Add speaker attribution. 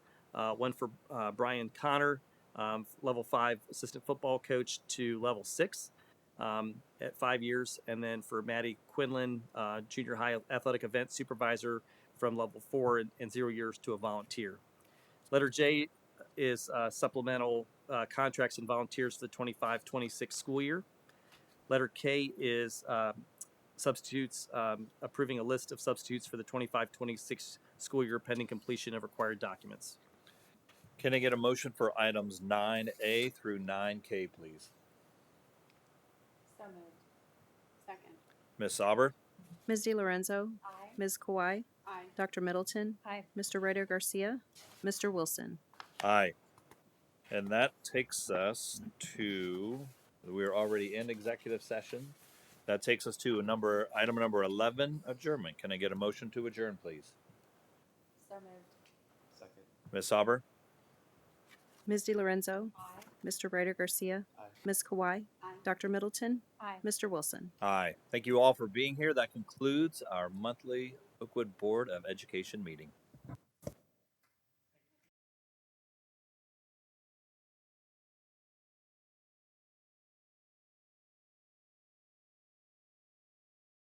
Speaker 1: uh, one for uh, Brian Connor, um, level five assistant football coach to level six um, at five years, and then for Maddie Quinlan, uh, junior high athletic event supervisor from level four and, and zero years to a volunteer. Letter J is uh, supplemental uh, contracts and volunteers for the 25 26 school year. Letter K is um, substitutes, um, approving a list of substitutes for the 25 26 school year pending completion of required documents.
Speaker 2: Can I get a motion for items 9A through 9K, please?
Speaker 3: So moved. Second.
Speaker 2: Ms. Sauber?
Speaker 4: Ms. DiLorenzo,
Speaker 3: Aye.
Speaker 4: Ms. Kawhi,
Speaker 3: Aye.
Speaker 4: Dr. Middleton,
Speaker 3: Aye.
Speaker 4: Mr. Ryder Garcia, Mr. Wilson.
Speaker 2: Aye. And that takes us to, we're already in executive session. That takes us to a number, item number 11, adjournment. Can I get a motion to adjourn, please?
Speaker 3: So moved.
Speaker 5: Second.
Speaker 2: Ms. Sauber?
Speaker 4: Ms. DiLorenzo,
Speaker 3: Aye.
Speaker 4: Mr. Ryder Garcia,
Speaker 5: Aye.
Speaker 4: Ms. Kawhi,
Speaker 3: Aye.
Speaker 4: Dr. Middleton,
Speaker 3: Aye.
Speaker 4: Mr. Wilson.
Speaker 2: Aye. Thank you all for being here. That concludes our monthly Oakwood Board of Education meeting.